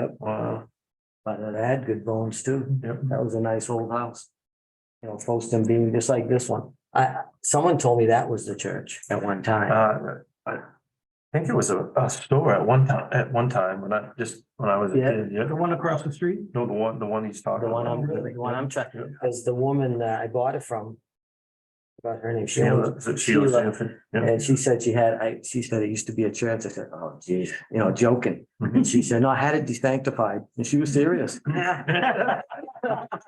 Yep. Wow. But it had good bones too. Yep. That was a nice old house. You know, Folston being just like this one. I, someone told me that was the church at one time. Uh, I think it was a, a store at one time, at one time, when I, just when I was a Yeah. kid, yeah. The one across the street? No, the one, the one he's talking The one about. I'm, the one I'm Yeah. checking, because the woman that I bought it from. About her name, Sheila. Sheila, is it Sheila Sheila. Sanford? Yeah. And she said she had, I, she said it used to be a church. I said, oh geez, you know, joking. And she said, no, I had it desanctified. And she was serious. I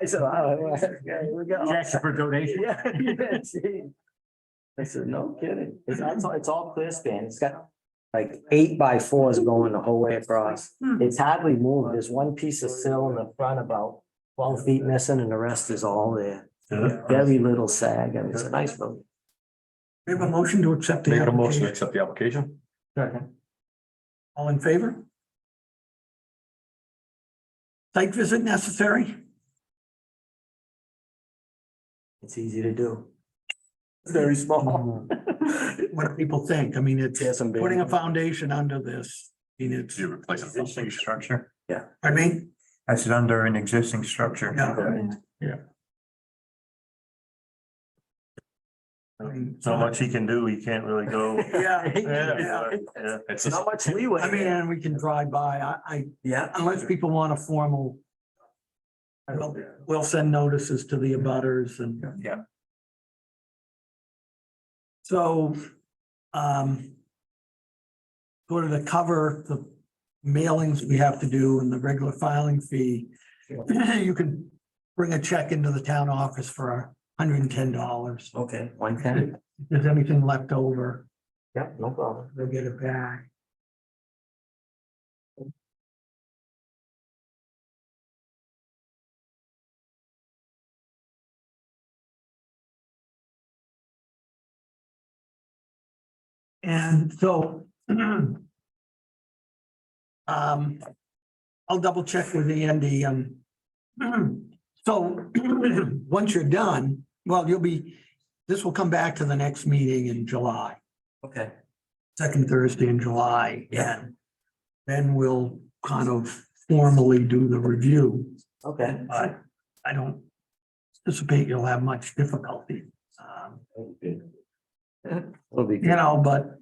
said, oh, here we go. for donation. Yeah, yeah, gee. I said, no kidding. It's, it's all, it's all clear span. It's got like eight by fours going the whole way across. Hmm. It's hardly moved. There's one piece of sill in the front about twelve feet missing and the rest is all there. Very little sag. I mean, it's a nice building. We have a motion to accept the Make a motion to application. accept the application. All in favor? Site visit necessary? It's easy to do. Very small. What do people think? I mean, it's Yeah, some big- putting a foundation under this. I mean, it's, replace a functioning structure? pardon me? I said under an existing structure. Yeah. I mean, So much he can do, he can't really go. Yeah, Yeah, yeah. yeah. It's not much leeway. I mean, and we can drive by. I, I, Yeah. unless people want a formal. We'll, we'll send notices to the abutters and. Yeah. So, um. Sort of to cover the mailings we have to do and the regular filing fee. You can bring a check into the town office for hundred and ten dollars. Okay, one ten. If there's anything left over, Yeah, no problem. they'll get it back. And so um, I'll double check with Andy, um, so once you're done, well, you'll be, this will come back to the next meeting in July Okay. second Thursday in July. Yeah. and Then we'll kind of formally do the review, Okay. but I don't anticipate you'll have much difficulty. um, It'll be You good. know, but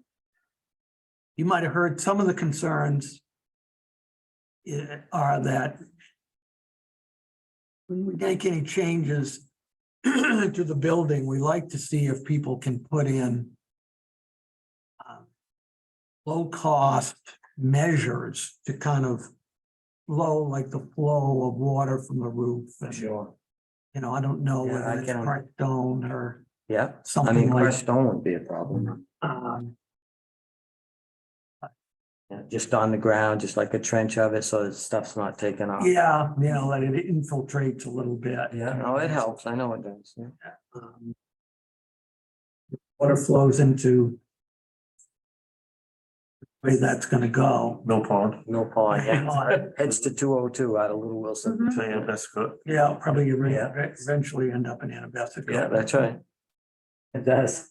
you might have heard some of the concerns eh, are that when we make any changes to the building, we like to see if people can put in um, low-cost measures to kind of low, like the flow of water from the roof. and, Sure. You know, I don't know Yeah, I whether it's can- cracked stone or Yeah. I something mean, like. crushed stone would be a problem. um, Yeah, Just on the ground, just like a trench of it, so that stuff's not taken off. Yeah, you know, that it infiltrates a little bit. Yeah, no, it helps. I know it does. yeah. Um, Water flows into way that's gonna go. No pond. No pond, Oh, yeah. Pond. Heads to two oh two out of Little Wilson. Mm-hmm. Say it, that's good. Yeah, probably you Yeah. eventually end up in Anabassa. Yeah, that's right. It does.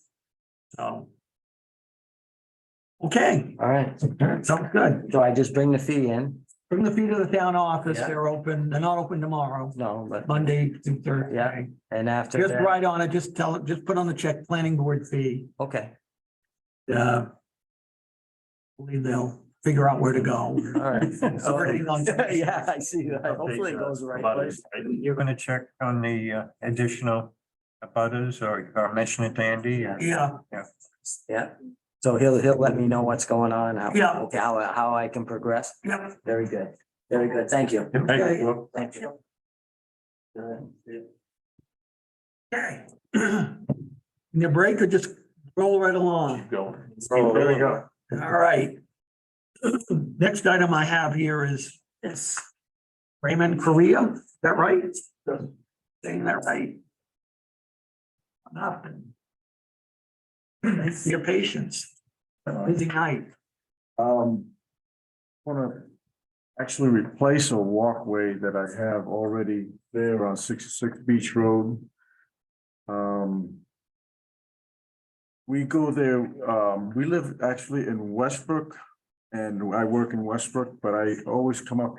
So. Okay, All right. sounds good. So I just bring the fee in? Bring the fee to the town office. Yeah. They're open. They're not open tomorrow, No, but, Monday through Thursday. Yeah. and after Just that, write on it, just tell it, just put on the check, planning board fee. okay, Uh. Believe they'll figure out where to go. all right. Already on- Yeah, I see that. Hopefully it Update, uh, goes the right about it. place. You're gonna check on the uh, additional butters or or mention it to Andy? or- Yeah. Yeah. So he'll, he'll let me know what's going on, how, Yeah. okay, how, how I can progress. Yeah. Very good. Very good. Thank you. Thank you. Thank you. Good. Okay. Need a break or just roll right along? Keep going. Oh, there we go. All right. Next item I have here is, is Raymond Korea, is that right? Saying that right? Nothing. Thanks for your patience. Busy night. Um, want to actually replace a walkway that I have already there on sixty-six Beach Road. Um, we go there, um, we live actually in Westbrook and I work in Westbrook, but I always come up